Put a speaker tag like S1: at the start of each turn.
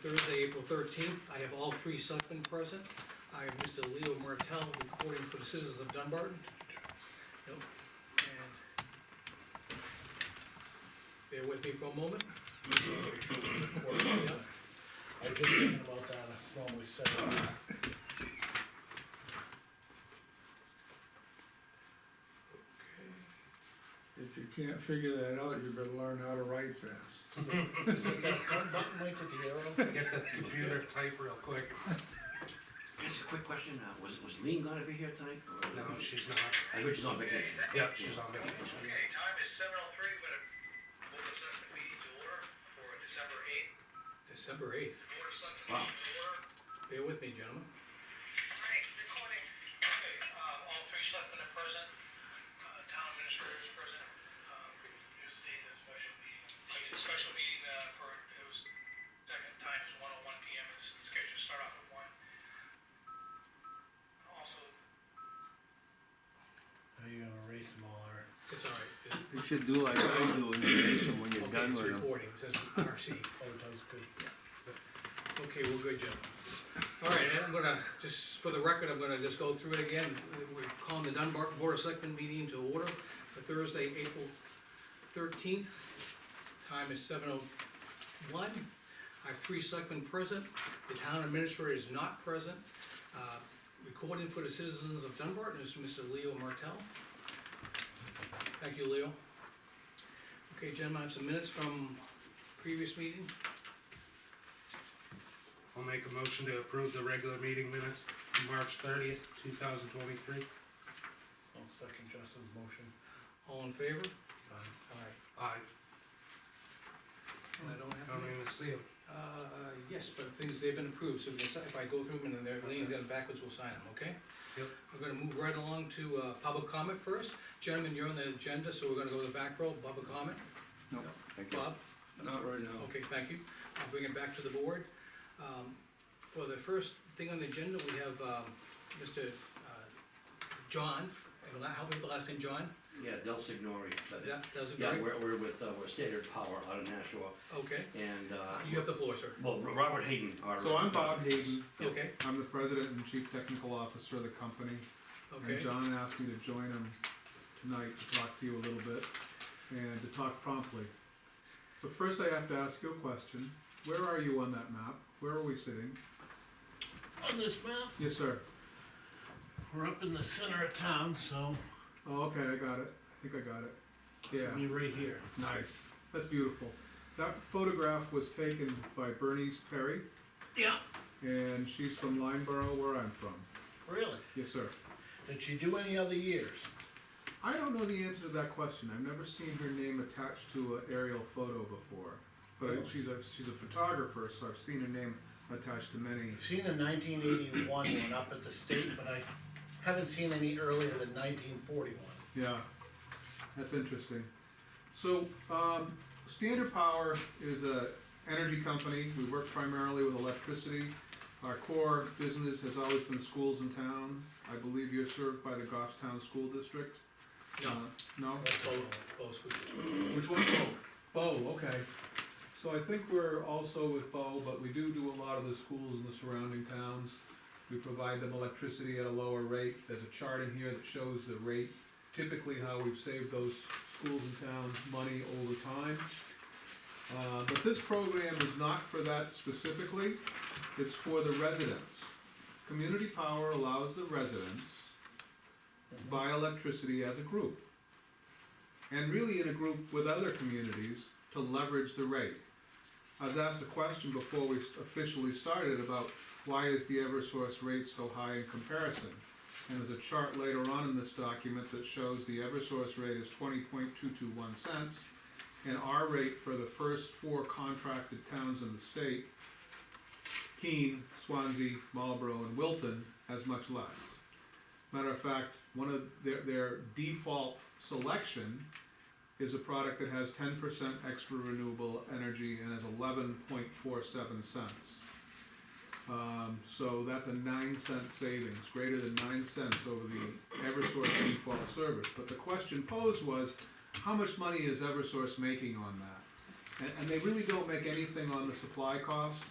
S1: Thursday, April thirteenth, I have all three selectmen present. I have Mr. Leo Martell recording for the citizens of Dunbarton. Yep, and Bear with me for a moment. Yep.
S2: I was just thinking about that, it's normally said.
S3: If you can't figure that out, you better learn how to write fast.
S2: Is it that front button right with the arrow?
S4: Get the computer type real quick.
S5: Just a quick question, uh, was, was Lean gonna be here tonight? or-
S4: No, she's not.
S5: I heard she's on vacation.
S4: Yep, she's on vacation.
S6: Okay, time is seven oh three, we're gonna move the second meeting to order for December eighth.
S1: December eighth,
S6: Board of Selectmen
S5: Wow.
S6: meeting to order.
S1: bear with me, gentlemen.
S6: Alright, recording. Okay, um, all three selectmen are present, uh, town administrator is present. Um, you see the special meeting. I did a special meeting, uh, for, it was, second time is one oh one P M, it's scheduled to start off at one. Also,
S2: Are you gonna erase them all, Eric?
S1: It's all right.
S7: You should do like I do in the nation when you're
S1: Okay,
S7: done
S1: it's
S7: with them.
S1: recording, it says RC.
S2: Oh, it does, good.
S1: Okay, we're good, gentlemen. All right, and I'm gonna, just for the record, I'm gonna just go through it again. We're calling the Dunbar Board of Selectmen meeting to order for Thursday, April thirteenth. Time is seven oh one. I have three selectmen present. The town administrator is not present. Uh, Recording for the citizens of Dunbar is Mr. Leo Martell. Thank you, Leo. Okay, gentlemen, I have some minutes from previous meeting.
S4: I'll make a motion to approve the regular meeting minutes, March thirtieth, two thousand twenty-three.
S2: I'll second Justin's motion.
S1: All in favor?
S2: Aye.
S1: Aye.
S4: I
S1: And I don't have
S4: don't
S1: any?
S4: even see them.
S1: Uh, yes, but things, they've been approved, so we can si- if I go through them and they're leaning them backwards, we'll sign them, okay?
S4: Yep.
S1: We're gonna move right along to, uh, public comment first. Gentlemen, you're on the agenda, so we're gonna go to the back row, public comment.
S7: No, thank you.
S1: Bob?
S7: Not right now.
S1: Okay, thank you. I'll bring it back to the board. Um, For the first thing on the agenda, we have, um, Mr. uh, John, help me with the last name, John?
S5: Yeah, Del Signori. but-
S1: Yeah, that's a
S5: Yeah,
S1: great,
S5: we're, we're with, uh, we're Standard Power out of Nashua,
S1: okay.
S5: and, uh,
S1: You have the floor, sir.
S5: well, Ro- Robert Hayden, our.
S3: So I'm Bob Hayden,
S1: Okay,
S3: I'm the president and chief technical officer of the company. And
S1: okay,
S3: John asked me to join him tonight to talk to you a little bit and to talk promptly. But first I have to ask you a question. Where are you on that map? Where are we sitting?
S2: On this map,
S3: Yes, sir.
S2: we're up in the center of town, so,
S3: Oh, okay, I got it. I think I got it. Yeah.
S2: we're right here.
S3: Nice. That's beautiful. That photograph was taken by Bernice Perry,
S2: Yeah.
S3: and she's from Lineborough, where I'm from.
S2: Really?
S3: Yes, sir.
S2: Did she do any other years?
S3: I don't know the answer to that question. I've never seen her name attached to an aerial photo before. But I- she's a she's a photographer, so I've seen her name attached to many.
S2: I've seen a nineteen eighty-one one up at the state, but I haven't seen any earlier than nineteen forty-one.
S3: Yeah, that's interesting. So, um, Standard Power is a energy company. We work primarily with electricity. Our core business has always been schools in town. I believe you're served by the Goffstown School District.
S1: no,
S3: Uh, No?
S1: that's both, both schools.
S3: Which one? Bo. Bo, okay. So I think we're also with Bo, but we do do a lot of the schools in the surrounding towns. We provide them electricity at a lower rate. There's a chart in here that shows the rate, typically how we've saved those schools and towns money over time. Uh, but this program is not for that specifically, it's for the residents. Community Power allows the residents to buy electricity as a group and really in a group with other communities to leverage the rate. I was asked a question before we officially started about why is the Eversource rate so high in comparison? And there's a chart later on in this document that shows the Eversource rate is twenty point two two one cents, and our rate for the first four contracted towns in the state, Keene, Swansea, Marlborough, and Wilton, has much less. Matter of fact, one of their, their default selection is a product that has ten percent extra renewable energy and is eleven point four seven cents. Um, so that's a nine cent savings, greater than nine cents over the Eversource default service. But the question posed was, how much money is Eversource making on that? And, and they really don't make anything on the supply cost.